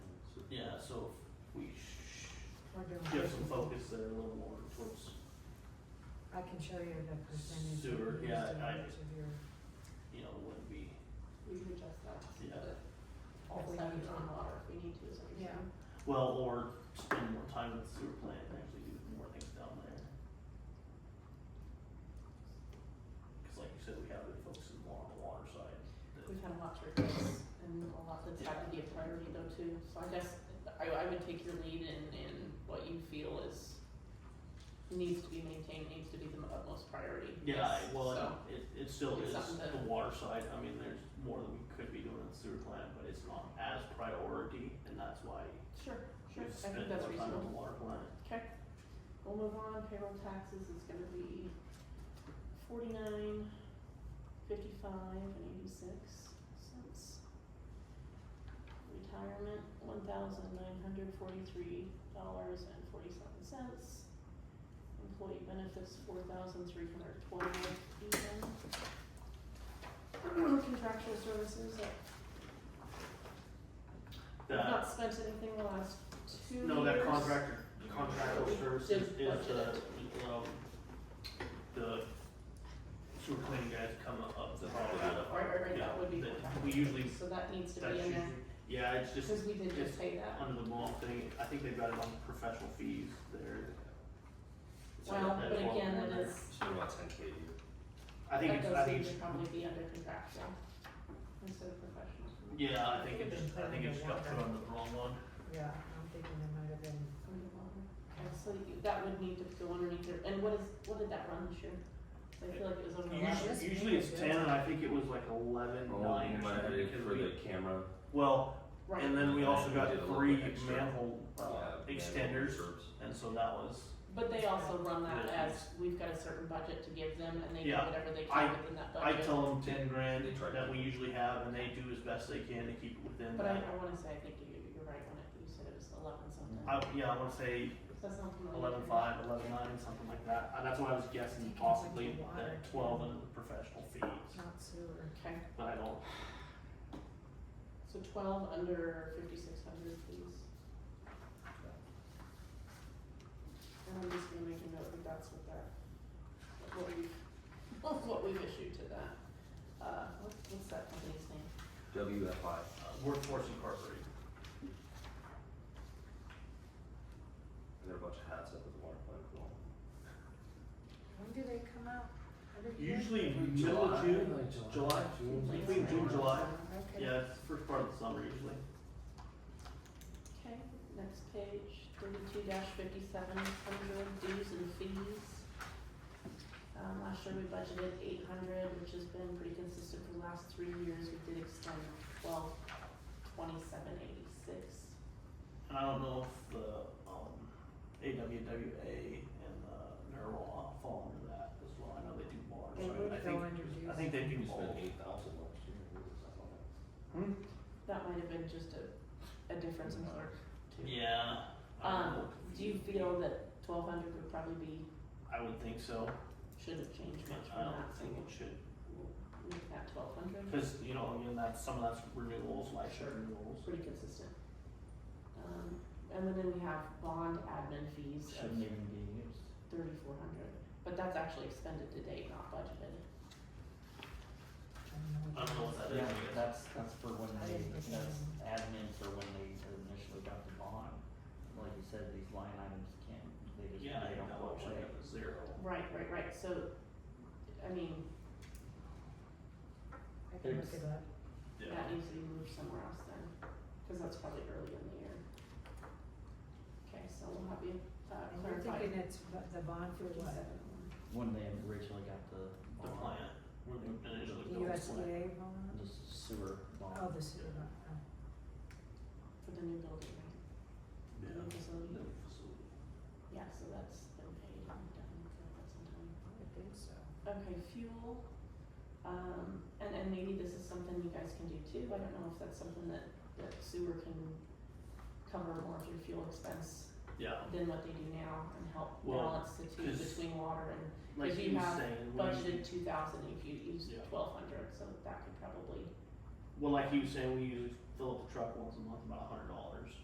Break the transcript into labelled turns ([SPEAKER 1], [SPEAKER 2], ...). [SPEAKER 1] so if we sh-
[SPEAKER 2] We're doing.
[SPEAKER 1] shift some focus there a little more towards,
[SPEAKER 2] I can show you the percentage. of
[SPEAKER 1] Sewer, yeah,
[SPEAKER 2] used in
[SPEAKER 1] I-
[SPEAKER 2] each of your-
[SPEAKER 1] you know, wouldn't be,
[SPEAKER 3] We can adjust that to
[SPEAKER 1] Yeah.
[SPEAKER 3] the
[SPEAKER 2] If we
[SPEAKER 3] offset
[SPEAKER 2] need to.
[SPEAKER 3] on water if we need to, is what you're
[SPEAKER 2] Yeah.
[SPEAKER 3] saying?
[SPEAKER 1] well, or spend more time with the sewer plant and actually do more things down there. Cause like you said, we have been focusing more on the water side.
[SPEAKER 3] We've had a lot to replace and a lot that's had to be a priority though too, so I guess I I would take your lead in in what you feel is needs to be maintained, needs to be the utmost priority.
[SPEAKER 1] Yeah, I-
[SPEAKER 3] Yes,
[SPEAKER 1] well,
[SPEAKER 3] So,
[SPEAKER 1] it, it still
[SPEAKER 3] it's
[SPEAKER 1] is
[SPEAKER 3] something that-
[SPEAKER 1] the water side, I mean, there's more that we could be doing in the sewer plant, but it's not as priority, and that's why
[SPEAKER 3] sure, sure,
[SPEAKER 1] we've
[SPEAKER 3] I
[SPEAKER 1] spent
[SPEAKER 3] think
[SPEAKER 1] more
[SPEAKER 3] that's
[SPEAKER 1] time on
[SPEAKER 3] reasonable.
[SPEAKER 1] the water plant.
[SPEAKER 3] Okay, we'll move on, payroll taxes is gonna be forty-nine, fifty-five, and eighty-six cents. Retirement, one thousand nine hundred forty-three dollars and forty-seven cents. Employee benefits, four thousand three hundred twelve even. Contractual services, I've
[SPEAKER 1] That,
[SPEAKER 3] not spent anything the last two years.
[SPEAKER 1] no, that contractor, contractual
[SPEAKER 3] We
[SPEAKER 1] services
[SPEAKER 3] did
[SPEAKER 1] is the,
[SPEAKER 3] budget
[SPEAKER 1] um, the sewer cleaning guys come up the,
[SPEAKER 3] Right, right, right,
[SPEAKER 1] yeah,
[SPEAKER 3] that would be
[SPEAKER 1] that,
[SPEAKER 3] contractual.
[SPEAKER 1] we usually,
[SPEAKER 3] So that needs to
[SPEAKER 1] that's
[SPEAKER 3] be in
[SPEAKER 1] usually,
[SPEAKER 3] there,
[SPEAKER 1] yeah, it's just
[SPEAKER 3] cause we did just pay that.
[SPEAKER 1] under the mall thing, I think they've got it on professional fees there. So
[SPEAKER 3] Well,
[SPEAKER 1] that's
[SPEAKER 3] but
[SPEAKER 1] what
[SPEAKER 3] again,
[SPEAKER 1] we're-
[SPEAKER 3] that is,
[SPEAKER 4] So you want ten K a year?
[SPEAKER 1] I think it's, I
[SPEAKER 3] that does
[SPEAKER 1] think
[SPEAKER 3] need
[SPEAKER 1] it's,
[SPEAKER 3] to probably be under contractual instead of professional.
[SPEAKER 1] yeah, I think it's, I think it's got put on the wrong one.
[SPEAKER 2] Yeah, I'm thinking it might have been,
[SPEAKER 3] Okay, so you, that would need to go underneath there, and what is, what did that run this year? 'Cause I feel like it was over eleven.
[SPEAKER 2] Yes,
[SPEAKER 1] Usually, usually it's
[SPEAKER 2] maybe.
[SPEAKER 1] ten, and I think it was like eleven,
[SPEAKER 4] Oh,
[SPEAKER 1] nine or something,
[SPEAKER 4] Monday
[SPEAKER 1] because
[SPEAKER 4] for the
[SPEAKER 1] we,
[SPEAKER 4] camera.
[SPEAKER 1] well,
[SPEAKER 3] Right,
[SPEAKER 1] and then we also
[SPEAKER 4] We
[SPEAKER 1] got
[SPEAKER 4] did a little
[SPEAKER 1] three
[SPEAKER 4] bit extra.
[SPEAKER 1] manhole, uh,
[SPEAKER 4] yeah,
[SPEAKER 1] extenders,
[SPEAKER 4] verbs.
[SPEAKER 1] and so that was,
[SPEAKER 3] but they also run that
[SPEAKER 1] Yeah.
[SPEAKER 3] as, we've got a certain budget to give them, and they do
[SPEAKER 1] Yeah,
[SPEAKER 3] whatever they
[SPEAKER 1] I-
[SPEAKER 3] can within that
[SPEAKER 1] I
[SPEAKER 3] budget.
[SPEAKER 1] tell them ten grand
[SPEAKER 4] They tried
[SPEAKER 1] that
[SPEAKER 4] to-
[SPEAKER 1] we usually have, and they do as best they can to keep it within
[SPEAKER 3] But I,
[SPEAKER 1] that.
[SPEAKER 3] I wanna say, I think you, you're right on it, you said it was eleven something,
[SPEAKER 1] I, yeah, I wanna say
[SPEAKER 3] So that's not familiar.
[SPEAKER 1] eleven five, eleven nine, something like that, and that's why I was guessing
[SPEAKER 2] Taking
[SPEAKER 1] possibly
[SPEAKER 2] like the water.
[SPEAKER 1] that twelve under the professional fees,
[SPEAKER 2] not sewer.
[SPEAKER 3] Okay,
[SPEAKER 1] but I don't,
[SPEAKER 3] so twelve under fifty-six hundred, please. And I'm just gonna make a note that that's what that, what we've, what we've issued to that. Uh, what's, what's that company's name?
[SPEAKER 4] WFI.
[SPEAKER 1] uh, workforce incorporated.
[SPEAKER 4] There are a bunch of hats up at the water plant. as well.
[SPEAKER 2] When do they come out? Every year?
[SPEAKER 1] Usually middle of June, July, between June, and July,
[SPEAKER 2] Okay.
[SPEAKER 1] yeah, it's the first part of the summer usually.
[SPEAKER 3] Okay, next page, thirty-two fifty-seven, hundred dues and fees. Um, last year we budgeted eight hundred, which has been pretty consistent for the last three years, we did extend twelve twenty-seven eighty-six.
[SPEAKER 1] And I don't know if the, um, AWWA and the NERWA fall under that as well, I know they do bars,
[SPEAKER 2] They
[SPEAKER 1] so I
[SPEAKER 2] would go
[SPEAKER 1] think,
[SPEAKER 2] under dues.
[SPEAKER 1] I think they do
[SPEAKER 4] We
[SPEAKER 1] both.
[SPEAKER 4] spent eight thousand last year. What was that on?
[SPEAKER 1] Hmm?
[SPEAKER 3] That might have been just a, a difference in clerk too.
[SPEAKER 1] Yeah. I don't
[SPEAKER 3] Um,
[SPEAKER 1] know.
[SPEAKER 3] do you feel that twelve hundred would probably be,
[SPEAKER 1] I would think so,
[SPEAKER 3] shouldn't change much
[SPEAKER 1] I
[SPEAKER 3] from
[SPEAKER 1] don't
[SPEAKER 3] that, so
[SPEAKER 1] think it should,
[SPEAKER 3] we'll make that twelve hundred?
[SPEAKER 1] cause you know, again, that's, some of that's renewals, life share renewals.
[SPEAKER 3] pretty consistent. Um, and then we have bond admin fees of
[SPEAKER 5] shouldn't even be used.
[SPEAKER 3] thirty-four hundred, but that's actually expended to date, not budgeted.
[SPEAKER 1] I don't know what that is,
[SPEAKER 5] Yeah,
[SPEAKER 1] I guess.
[SPEAKER 5] that's, that's for when
[SPEAKER 2] I
[SPEAKER 5] they,
[SPEAKER 2] didn't get
[SPEAKER 5] that's
[SPEAKER 2] that.
[SPEAKER 5] admin for when they initially got the bond. Like you said, these line items can't, they just,
[SPEAKER 1] Yeah, I
[SPEAKER 5] they
[SPEAKER 1] think
[SPEAKER 5] don't
[SPEAKER 1] that
[SPEAKER 5] go
[SPEAKER 1] one should
[SPEAKER 5] away.
[SPEAKER 1] have a zero.
[SPEAKER 3] Right, right, right, so, I mean,
[SPEAKER 2] I can look it up.
[SPEAKER 1] Yeah,
[SPEAKER 3] that needs to be moved somewhere else then, cause that's probably early in the year. Okay, so we'll have you, uh,
[SPEAKER 2] And you're
[SPEAKER 3] clarify.
[SPEAKER 2] thinking it's bu- the bond for what?
[SPEAKER 3] 57.
[SPEAKER 5] When they originally got the
[SPEAKER 1] the
[SPEAKER 5] bond,
[SPEAKER 1] plant, where they initially
[SPEAKER 2] The
[SPEAKER 1] built the plant.
[SPEAKER 2] USDA bond?
[SPEAKER 5] the sewer bond.
[SPEAKER 2] Oh, the sewer bond, oh.
[SPEAKER 3] For the new building, right?
[SPEAKER 1] Yeah.
[SPEAKER 3] The new
[SPEAKER 1] The
[SPEAKER 3] facility,
[SPEAKER 1] facility.
[SPEAKER 3] yeah, so that's been paid and done for quite some time.
[SPEAKER 2] I would think so.
[SPEAKER 3] Okay, fuel, um, and, and maybe this is something you guys can do too, I don't know if that's something that, that sewer can cover more of your fuel expense
[SPEAKER 1] Yeah,
[SPEAKER 3] than what they do now and help
[SPEAKER 1] Well,
[SPEAKER 3] balance the two
[SPEAKER 1] 'cause-
[SPEAKER 3] between water and
[SPEAKER 1] like
[SPEAKER 3] If you
[SPEAKER 1] he was
[SPEAKER 3] have
[SPEAKER 1] saying, when you-
[SPEAKER 3] budgeted two thousand if you use
[SPEAKER 1] Yeah.
[SPEAKER 3] twelve hundred, so that could probably
[SPEAKER 1] well, like he was saying, we usually fill up the truck once a month, about a hundred dollars.